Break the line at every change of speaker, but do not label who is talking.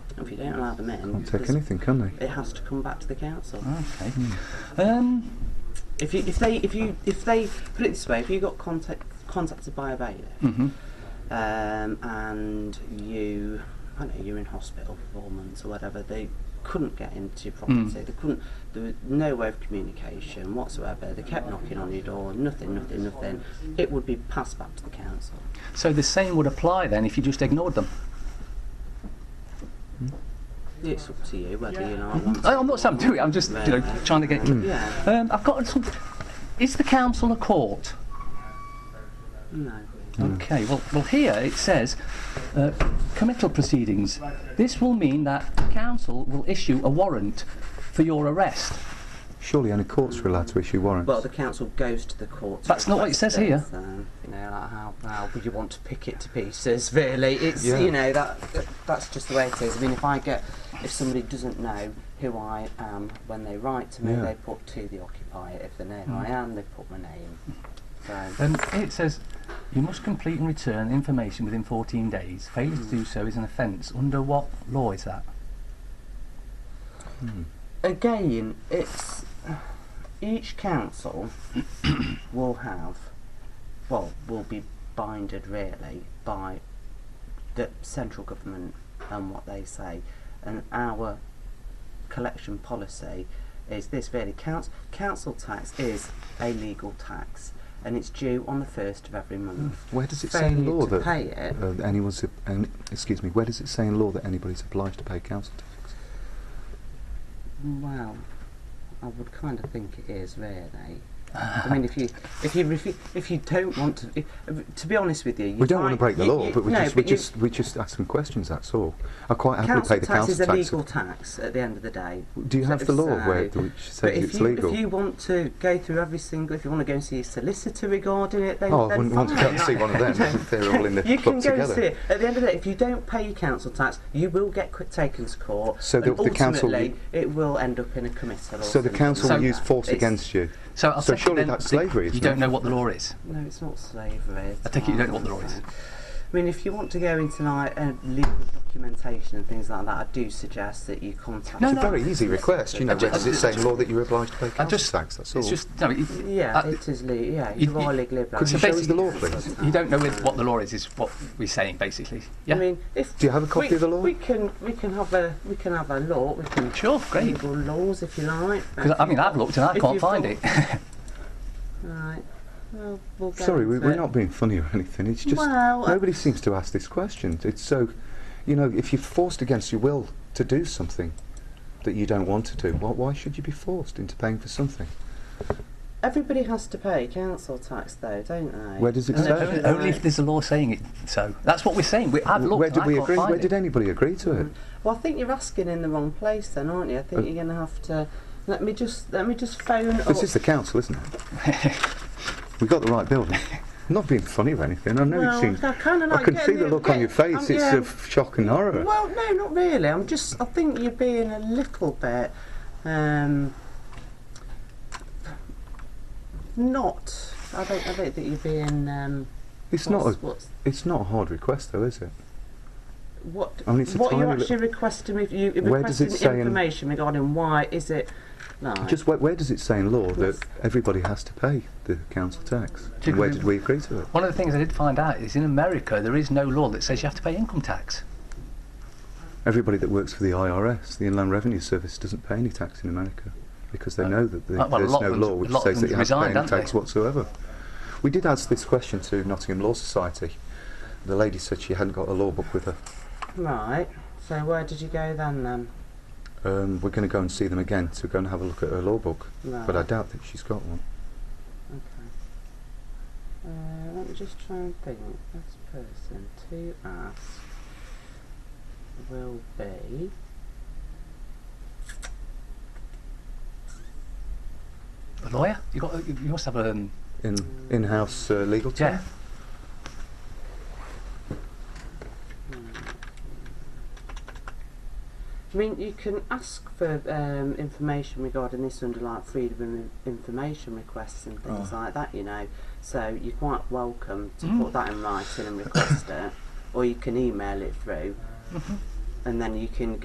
If you don't allow them in,
Can't take
there's-
anything, can they?
It has to come back to the council.
Okay. Um,
If you, if they, if you, if they put it this way, if you got contact, contacted by a bailiff,
Hmm.
mhm.
um, and you, I don't know, you're in hospital for four months or whatever, they couldn't get into your property.
Hmm.
Mm.
They couldn't. There was no way of communication whatsoever. They kept knocking on your door. Nothing, nothing, nothing. It would be passed back to the council.
So the same would apply then if you just ignored them.
It's up to you whether you know. want
I, I'm not saying do it. I'm just you know trying to get.
to- Yeah.
Um, I've got. Some, is the council a court?
No.
Hmm.
Okay, well, well here it says uh, committal proceedings. This will mean that the council will issue a warrant for your arrest.
Surely any court's are allowed to issue warrants.
Well, the council goes to the court. to
That's not what it
request
says here.
this, um, you know, like how, how would you want to pick it to pieces? Really, it's
Yeah.
you know that that- that's just the way it is. I mean, if I get if somebody doesn't know who I am when they write to me,
Yeah.
they put to the occupier. If they know who
Hmm.
I am, they put my name. So
Um, it says you must complete and return information within 14 days. Failure to do so is an offence. Under what law is that?
again, it's each council will have well will be binded really by the central government and what they say and our collection policy is this really council council tax is a legal tax and it's due on the first of every month
where does it say in
Failure
law
to
that
pay it
uh, anyone's any, excuse me? Where does it say in law that anybody's obliged to pay council tax?
Well, I would kind of think it is really.
Ah.
I mean, if you if you refu- if you don't want to, if, to be honest with you, you
we don't want to
might-
break the
you-
law,
you-
but we
no,
just we
but you-
just we just ask some questions. That's all. I quite happily
council
pay the
tax
council
is a
tax.
legal tax at the end of the day.
Do you
So-
have the law where
so-
which
But
says
if
it's
you,
legal?
if you want to go through every single, if you want to go and see a solicitor regarding it, then
oh, I
then
wouldn't want to
fine.
go and see one of them. They're all in the
you
club
can go
together.
and see it. At the end of the day, if you don't pay your council tax, you will get qu- taken to court.
So the-
and
the council-
ultimately, it will end up in a committal. or
So the
something
council
like
will use
that.
force
It's-
against you.
So, I'll
So
take it
surely
then
that's
that
slavery,
You
isn't
don't
it?
know what the law is.
No, it's not slavery. It's
I take it you
not-
don't want the noise.
I mean, if you want to go into like uh, legal documentation and things like that, I do suggest that you contact.
No,
It's
no.
a very easy request. You know,
ju-
where does
I
it
ju-
say in law that you're obliged to pay council
just-
tax? That's all.
It's just no. it-
Yeah,
uh,
it is. Le- yeah,
you-
you, are
you-
legally obliged.
could you
So
show us the law, please?
you don't know with- what the law is. Is what we're saying basically. Yeah.
I mean, if
Do you have a copy
we,
of the law?
we can we can have a we can have a law. We can
Sure, great.
legal laws if you like.
Because I mean, I've looked and I
If
can't
you've
find
got-
it.
Right. Well, we'll go
Sorry, we,
into
we're
it.
not being funny or anything. It's just
uh,
Well, I-
nobody seems to ask this question. It's so, you know, if you're forced against your will to do something that you don't want to do, why why should you be forced into paying for something?
Everybody has to pay council tax, though, don't they?
Where does it
And
say?
everybody-
only, only if there's a law saying it. So that's what we're saying. We, I've looked.
Where
and
did
I
we
can't
agree?
find
Where
it. Mm-hmm.
did anybody agree to it?
Well, I think you're asking in the wrong place, then, aren't you? I think
Uh,
you're going to have to. Let me just let me just phone up.
This is the council, isn't it? we got the right building. I'm not being funny or anything. I know
well,
it seems.
I kind of like
I can see
getting
the look on your face.
um,
I'm-
it's
yeah.
of shock and horror.
Well, no, not really. I'm just. I think you're being a little bit. Um, not. I don't. I don't think you're being. Um,
It's
what's,
not. A,
what's
it's not a hard request, though, is it?
what?
I mean, it's a
what you're
tiny li-
actually requesting? If you you're
Where does it
requesting
say in-
information regarding why is it? Like,
Just where, where does it say in law that
Yes.
everybody has to pay the council tax?
Did
And where
we-
did we agree to it?
One of the things I did find out is in America there is no law that says you have to pay income tax.
Everybody that works for the IRS, the Inland Revenue Service, doesn't pay any tax in America because they know that the,
well, a
there's
lot
no
of
law
them-
which
a lot of
says that
them
you have to
resigned,
pay any
haven't
tax
they?
whatsoever. We did ask this question to Nottingham Law Society. The lady said she hadn't got a law book with her.
Right. So where did you go then? Then.
Um, we're going to go and see them again to go and have a look at her law book,
Right.
but I doubt that she's got one.
Okay. Uh, let me just try and think. This person to ask will be.
A lawyer? You got? You must have a. Um,
In in-house uh, legal team.
yeah.
I mean, you can ask for um, information regarding this under like freedom of information requests and things like that, you know. So you're quite welcome to put that in writing and request it, or you can email it through, and then you can